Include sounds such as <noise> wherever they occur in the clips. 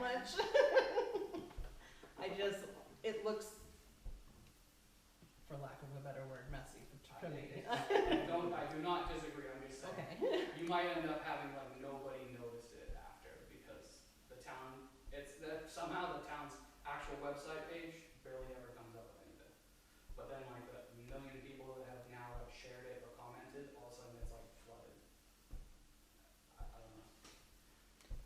<laughs>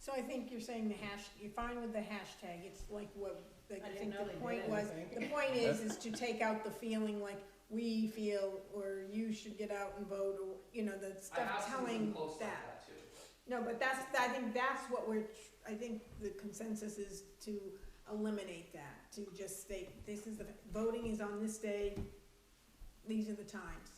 So I think you're saying the hash, you're fine with the hashtag, it's like what, like, I I didn't think know the they point did. was, the point is, is to take out the feeling like we feel, or you should get out and vote, or, you know, the stuff telling close like that. that too. No, but that's, I think that's what we're, tr- I think the consensus is to eliminate that, to just state, this is the, voting is on this day, these are the times.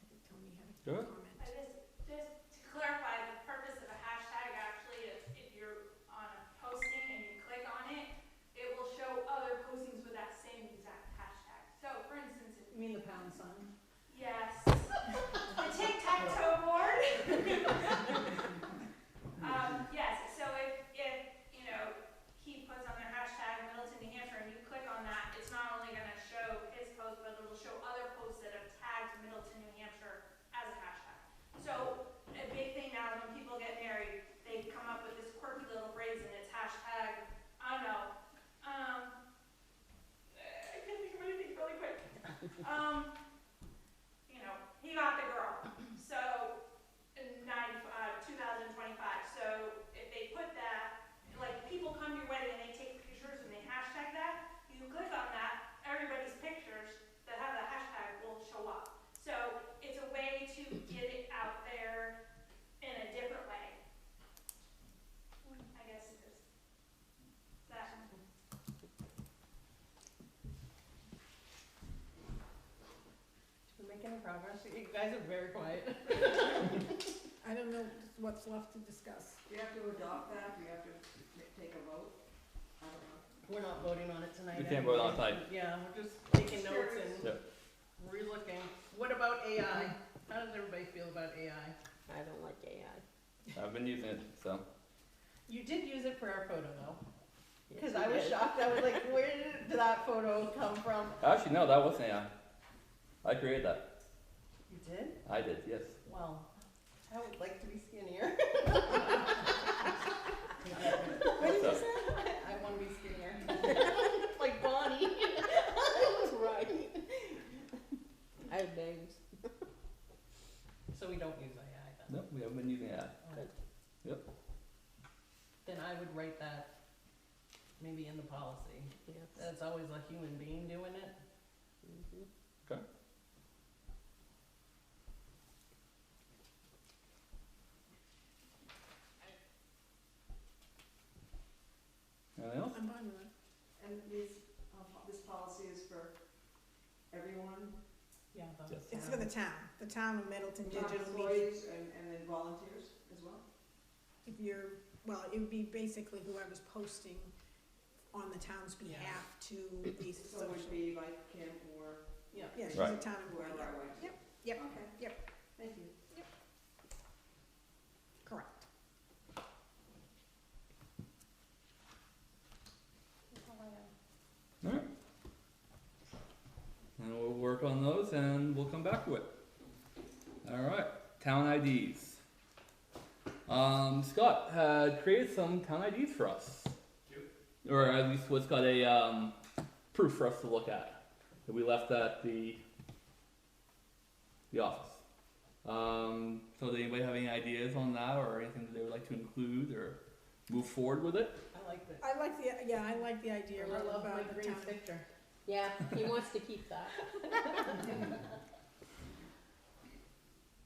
I think Tony had a Good. comment. I just, just to clarify, the purpose of a hashtag actually is if you're on a posting and you click on it, it will show other postings with that same exact hashtag. So for instance, if, You mean the pound sign? yes, the tic-tac-toe board. <laughs> Um, yes, so if, if, you know, he puts on their hashtag Middleton, New Hampshire, and you click on that, it's not only gonna show his post, but it'll show other posts that have tagged Middleton, New Hampshire as a hashtag. So, a big thing now is when people get married, they come up with this quirky little phrase and it's hashtag, I don't know, um, I can't think of anything really quick. Um, you know, he got the girl, so, in 90, uh, 2025. So if they put that, like people come to your wedding and they take pictures and they hashtag that, you click on that, everybody's pictures that have the hashtag will show up. So it's a way to get it out there in a different way. I guess it is. That. Did we make any progress? You guys are very quiet. I don't know what's left to discuss. Do we have to adopt that? Do we have to t- take a vote? I don't know. We're not voting on it tonight. We can't vote on everybody. Yeah, we're just taking notes and Yep. relooking. What about AI? How does everybody feel about AI? I don't like AI. I've been using it, so. You did use it for our photo though, Yes, because you I was did. shocked. I was <laughs> like, where did that photo come from? Actually, no, that wasn't AI. I created that. You did? I did, yes. Well, I would like to be skinnier. <laughs> What did you say? I want to be skinnier. <laughs> like Bonnie. I was right. I have names. So we don't use AI then? No, we haven't been using AI. Alright. Yep. Then I would write that maybe in the policy, Yes. that it's always a human being doing it. Mhm. Anything else? I'm fine with it. And these, uh, po- this policy is for everyone, Yeah. the Yes. It's for the town, the town of Middleton not Digital Media. employees and, and then volunteers as well? If you're, well, it would be basically whoever's posting on the town's Yeah. behalf to these So social. it would be like Kim or Yeah, she's a Right. town employee, whoever I went to? Yep, yep, Okay. yep. Thank you. correct. Alright. And we'll work on those and we'll come back to it. Alright, town IDs. Um, Scott had created some town IDs for us. Cute. Or at least what's got a um, proof for us to look at that we left at the the office. Um, so does anybody have any ideas on that or anything that they would like to include or move forward with it? I like that. I like the, yeah, I like the idea I love of my uh, the green town. picture. Yeah, he wants to keep that.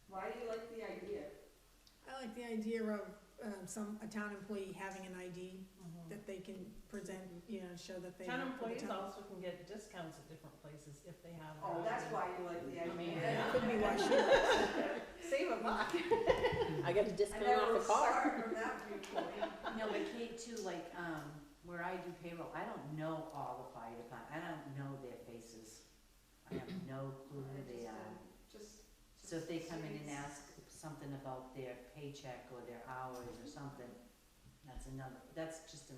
Why do you like the idea? I like the idea of, um, some, a town employee having an ID that they can present, you know, show that they. Town work for the employees town. also can get discounts at different places if they have. Oh, their that's own. why you like the I mean, idea. That Could be why <laughs> she, save a buck. I got a I discount off never was the car. started <laughs> from that viewpoint. No, but Kate too, like, um, where I do payroll, I don't know all the fire department, I don't know their faces. I have no clue who they are. uh, Just. So if they come in and ask something about their paycheck or their hours or something, that's another, that's just